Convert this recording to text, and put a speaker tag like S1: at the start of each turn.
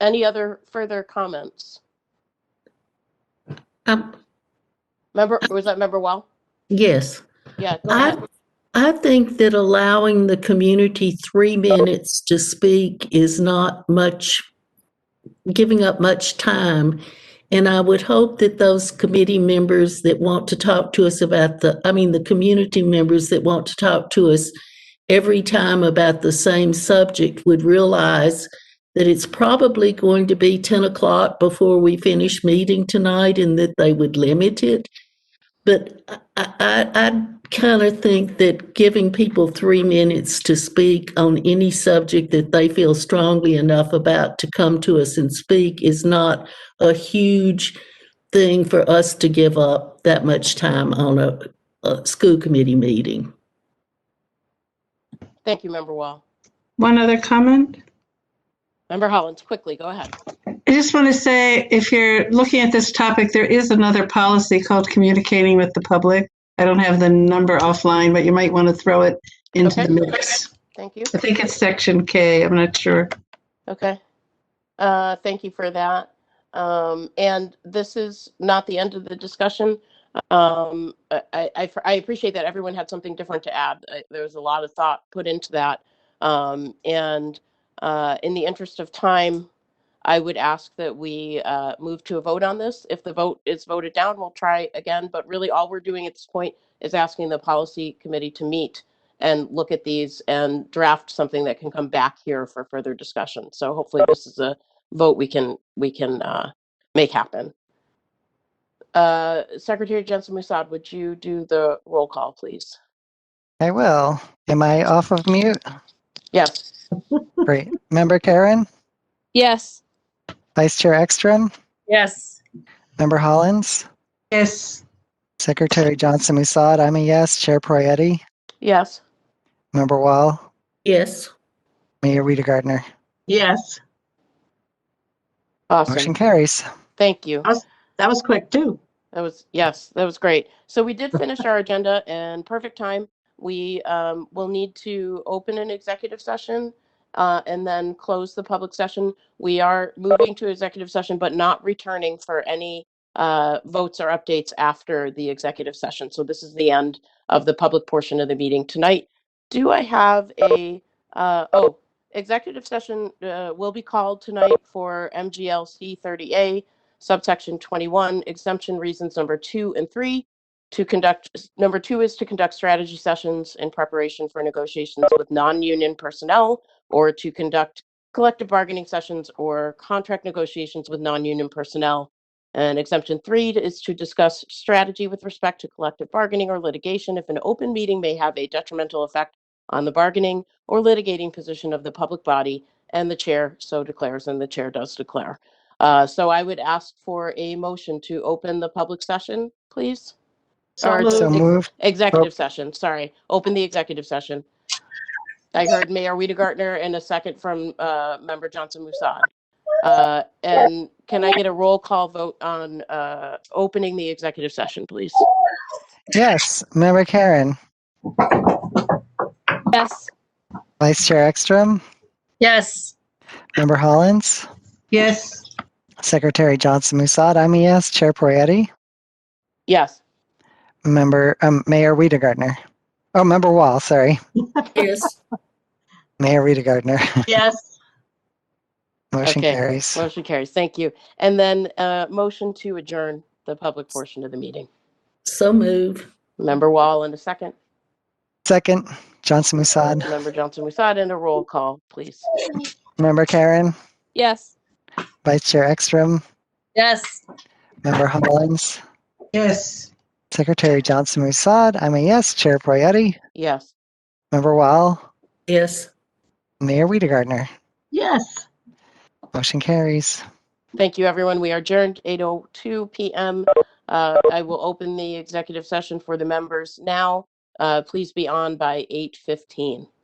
S1: Any other further comments?
S2: Um,
S1: Member, was that member Wall?
S2: yes,
S1: Yeah, go
S2: I,
S1: ahead.
S2: I think that allowing the community three minutes to speak is not much, giving up much time. And I would hope that those committee members that want to talk to us about the, I mean, the community members that want to talk to us every time about the same subject would realize that it's probably going to be 10 o'clock before we finish meeting tonight and that they would limit it. But I, I, I kind of think that giving people three minutes to speak on any subject that they feel strongly enough about to come to us and speak is not a huge thing for us to give up that much time on a, a school committee meeting.
S1: Thank you, member Wall.
S3: One other comment.
S1: Member Hollins, quickly, go ahead.
S3: I just want to say, if you're looking at this topic, there is another policy called communicating with the public. I don't have the number offline, but you might want to throw it into
S1: Okay.
S3: the mix.
S1: Thank you.
S3: I think it's section K, I'm not sure.
S1: Okay. Uh, Thank you for that. Um, And this is not the end of the discussion. Um, I I- I appreciate that everyone had something different to add. I- There was a lot of thought put into that. Um, And uh, in the interest of time, I would ask that we uh, move to a vote on this. If the vote is voted down, we'll try again. But really, all we're doing at this point is asking the policy committee to meet and look at these and draft something that can come back here for further discussion. So hopefully this is a vote we can, we can uh, make happen. Uh, Secretary Jensen Musad, would you do the roll call, please?
S4: I will. Am I off of mute?
S1: Yes.
S4: Great. Member Karen,
S5: Yes.
S4: Vice Chair Ekstrom,
S5: Yes.
S4: Member Hollins,
S3: Yes,
S4: Secretary Johnson Musad, I'm a yes. Chair Proietti,
S1: Yes.
S4: Member Wall,
S2: Yes.
S4: Mayor Rita Gardner.
S3: yes,
S1: Awesome.
S4: Motion carries.
S1: Thank you.
S3: that was quick too.
S1: That was, yes, that was great. So we did finish our agenda in perfect time. We um, will need to open an executive session uh, and then close the public session. We are moving to executive session, but not returning for any uh, votes or updates after the executive session. So this is the end of the public portion of the meeting tonight. Do I have a, uh, oh, executive session uh, will be called tonight for MGLC 30A subsection 21, exemption reasons number two and three. To conduct, number two is to conduct strategy sessions in preparation for negotiations with non-union personnel or to conduct collective bargaining sessions or contract negotiations with non-union personnel. And exemption three is to discuss strategy with respect to collective bargaining or litigation if an open meeting may have a detrimental effect on the bargaining or litigating position of the public body and the chair so declares and the chair does declare. Uh, So I would ask for a motion to open the public session, please.
S3: So
S1: Or-
S4: So
S1: Ex-
S3: moved.
S4: moved.
S1: Executive session, sorry. Open the executive session. I heard Mayor Rita Gartner and a second from uh, Member Johnson Musad. Uh, And can I get a roll call vote on uh, opening the executive session, please?
S4: Yes. Member Karen,
S5: Yes.
S4: Vice Chair Ekstrom,
S5: Yes.
S4: Member Hollins,
S3: Yes.
S4: Secretary Johnson Musad, I'm a yes. Chair Proietti,
S1: Yes,
S4: Member, um, Mayor Rita Gardner. Oh, Member Wall, sorry.
S2: Yes.
S4: Mayor Rita Gardner.
S3: Yes.
S4: Motion
S1: Okay.
S4: carries.
S1: motion carries, thank you. And then uh, motion to adjourn the public portion of the meeting.
S2: So move.
S1: Member Wall in a second,
S4: Second, Johnson Musad.
S1: Member Johnson Musad, and a roll call, please.
S4: Member Karen,
S5: Yes.
S4: Vice Chair Ekstrom,
S5: Yes.
S4: Member Hollins,
S3: Yes.
S4: Secretary Johnson Musad, I'm a yes. Chair Proietti,
S1: Yes.
S4: Member Wall,
S2: Yes.
S4: Mayor Weidergartner.
S3: Yes.
S4: Motion carries.
S1: Thank you, everyone. We are adjourned 8:02 PM. Uh, I will open the executive session for the members now. Uh, Please be on by 8:15.